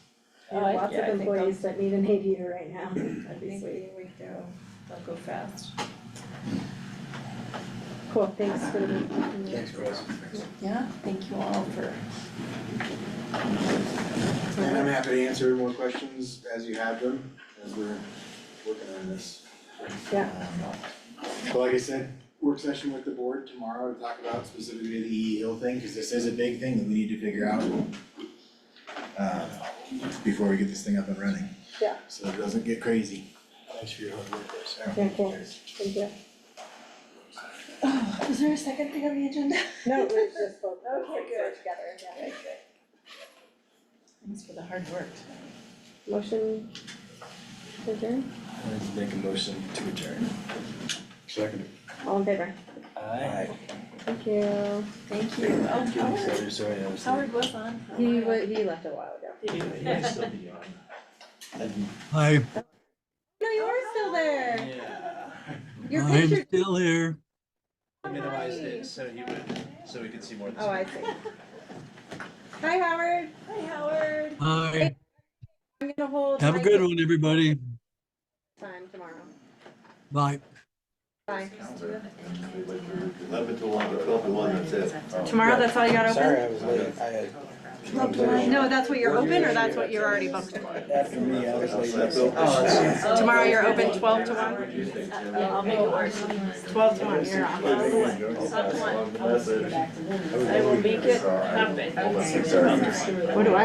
We have Oh, I- lots yeah, I of think I'll- employees that need an aviator right now, I that'd be think sweet. we, we go, they'll go fast. Cool, thanks for the. Thanks, Chris. Yeah, thank you all for. And I'm happy to answer more questions as you have them, as we're working on this. Um, Yeah. But like I said, work session with the board tomorrow to talk about specifically the E Hill thing, because this is a big thing that we need to figure out uh, before we get this thing up and running. Yeah. So it doesn't get crazy. Thanks for your hard work, Chris. Yeah, cool. Thank you. Oh, is there a second thing on the agenda? No, it was just both, Okay, both good. together, yeah. Okay, good. Thanks for the hard work tonight. Motion to adjourn, Let's make a motion to adjourn. Second. all in favor, Aye. thank you. Thank you. Oh, Howard, Sorry, sorry, I was. Howard was on. for a He while. wa- he left a while ago. He might still be on. I'm- Hi, No, you are still there, Yeah. your I'm picture, still here. I Minimized it so he would, so we could see more of the oh, I see. Hi Howard, Hi, Howard. Hi, I'm gonna hold. have a my good one, everybody. Time tomorrow, Bye. bye. Eleven to one, or twelve to one, that's it. Tomorrow, that's all you got open? I was late, I had. No, that's what you're open or that's what you're already booked? After me, I was late. Oh, Tomorrow you're open twelve to one? Yeah, Oh, I'll make Twelve to one, you're off. Up one. Message. I will make it happen. Six hours. What do I?